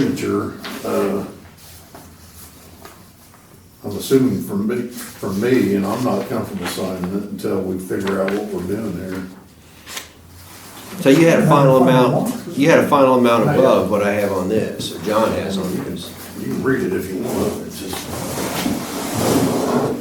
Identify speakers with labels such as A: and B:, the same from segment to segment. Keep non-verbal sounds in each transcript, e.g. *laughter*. A: signature, uh, I'm assuming from me, from me, and I'm not comfortable signing it until we figure out what we're doing here.
B: So you had a final amount, you had a final amount above what I have on this, or John has on his.
A: You can read it if you want, it's just,
C: Well,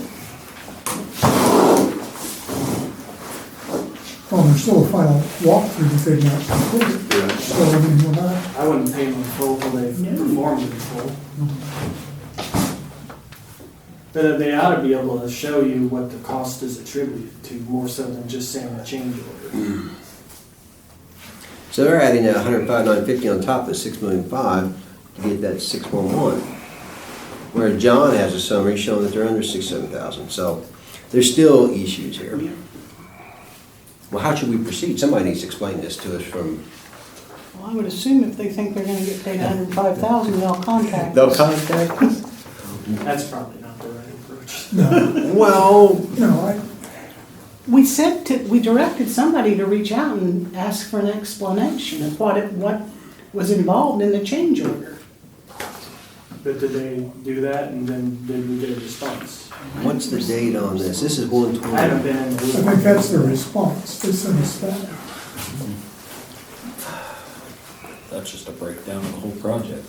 C: Oh, there's still a final walkthrough that they've not completed,
A: yeah,
C: so I mean, we're not,
D: I wouldn't pay them in full till they performed in full. But uh, they ought to be able to show you what the cost is attributed to, more so than just saying a change order.
B: So they're adding that hundred five, nine fifty on top of the six million five to get that six one one. Where John has a summary showing that they're under six, seven thousand, so there's still issues here. Well, how should we proceed? Somebody needs to explain this to us from,
E: Well, I would assume if they think they're gonna get paid hundred and five thousand, they'll contact
B: they'll
E: us.
B: contact us?
D: That's probably not the right approach.
C: no,
B: Well,
C: you know, I,
E: We sent to, we directed somebody to reach out and ask for an explanation of what it, what was involved in the change order.
D: But did they do that and then did we get a response?
B: what's the date on this? This is one
D: I haven't
B: twenty.
D: been in the
C: I think that's the response, they sent us that.
F: That's just a breakdown of the whole project.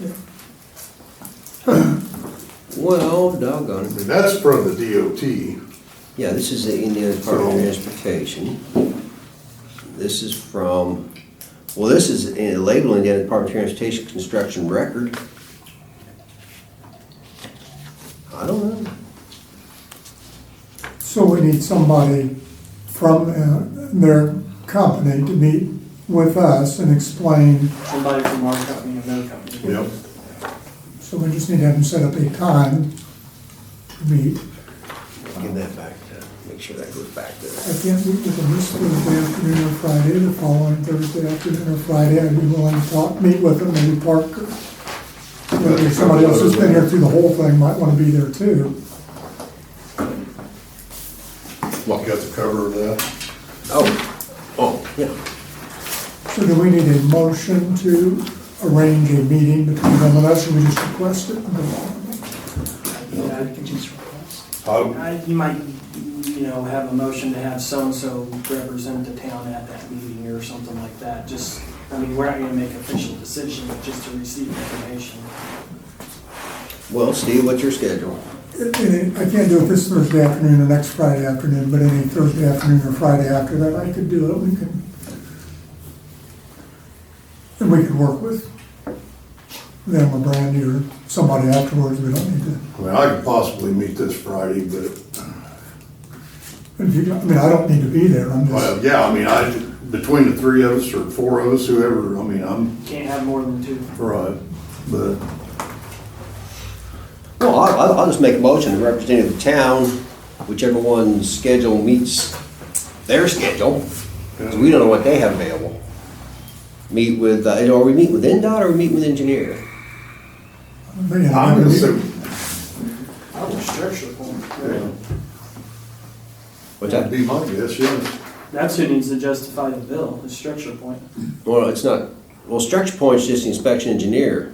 B: Well, doggone it.
A: I mean, that's from the DOT.
B: Yeah, this is the Indiana Department of Transportation. This is from, well, this is in- labeled Indiana Department of Transportation Construction Record. I don't know.
C: So we need somebody from uh, their company to meet with us and explain,
D: somebody from our company and their company.
A: Yep.
C: so we just need to have them set up a time to meet.
B: Give that back to, make sure that goes back
C: I
B: to.
C: can't meet with them this Thursday afternoon or Friday, the following Thursday afternoon or Friday, I'd be willing to talk, meet with them, maybe Parker. Maybe somebody else who's been here through the whole thing might wanna be there too.
A: What, got the cover of that?
B: Oh, oh, yeah.
C: So do we need a motion to arrange a meeting between them and us, or we just request it and go on?
D: Yeah, I could just request.
A: I,
D: I, you might, you know, have a motion to have so-and-so represent the town at that meeting or something like that. Just, I mean, we're not gonna make official decision, but just to receive information.
B: Well, Steve, what's your schedule?
C: And I can't do it this Thursday afternoon or next Friday afternoon, but any Thursday afternoon or Friday after that, I could do it, we can. And we could work with them or Brandy or somebody afterwards, we don't need to.
A: I mean, I could possibly meet this Friday, but,
C: If you, I mean, I don't need to be there, I'm just,
A: well, yeah, I mean, I, between the three of us or four of us, whoever, I mean, I'm,
D: Can't have more than two.
A: right, but.
B: Well, I- I'll, I'll just make a motion to representative of the town, whichever one's schedule meets their schedule. Because we don't know what they have available. Meet with, uh, or we meet with NDOT or we meet with engineer?
C: man,
A: I'm
C: I
A: gonna
C: mean,
A: say,
D: I would stretch the point.
A: yeah,
B: What's
A: that'd
B: that?
A: be my guess, yes.
D: That's who needs to justify the bill, is structure point.
B: Well, it's not, well, structure point's just the inspection engineer.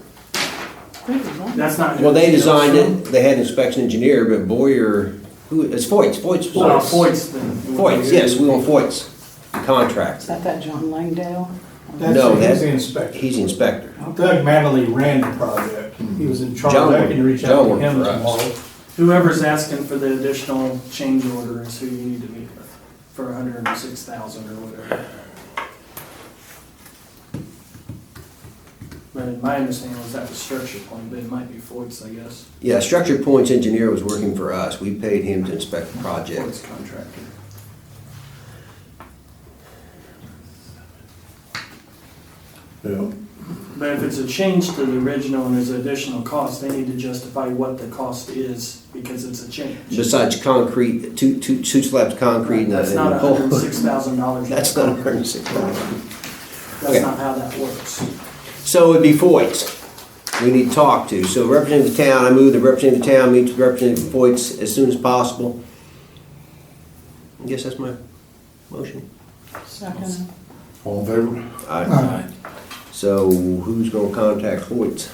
E: Great, well,
D: That's not. who
B: Well, they
D: it's
B: designed
D: from.
B: it, they had inspection engineer, but Boyer, who, it's Foyt's, Foyt's,
D: Well,
B: Foyt's.
D: Foyt's then.
B: Foyt's, yes, we want Foyt's, the contract.
E: Is that that John Langdale?
B: No, that's-
G: That's, he's the inspector.
B: He's the inspector.
G: Doug Manley ran the project. He was in charge.
B: John
G: I can
B: worked-
G: reach out
B: John
G: to
B: worked
G: him
B: for us.
G: tomorrow.
D: Whoever's asking for the additional change order is who you need to meet with for a hundred and six thousand or whatever. But my understanding was that was structure point, but it might be Foyt's, I guess,
B: Yeah, structure point's engineer was working for us. We paid him to inspect the project.
D: Foyt's contractor.
A: Yeah,
D: But if it's a change to the original and there's additional cost, they need to justify what the cost is because it's a change.
B: Besides concrete, two, two, two slabs of concrete and a
D: That's not
B: and a
D: a
B: pole.
D: hundred and six thousand
B: *laughs*
D: dollars.
B: That's not a hundred and six thousand.
D: That's not how that works.
B: So it'd be Foyt's we need to talk to. So representative of the town, I move the representative of the town meets with representative Foyt's as soon as possible. I guess that's my motion.
E: Second.
A: all in favor?
B: All right.
C: uh,
B: So who's gonna contact Foyt's?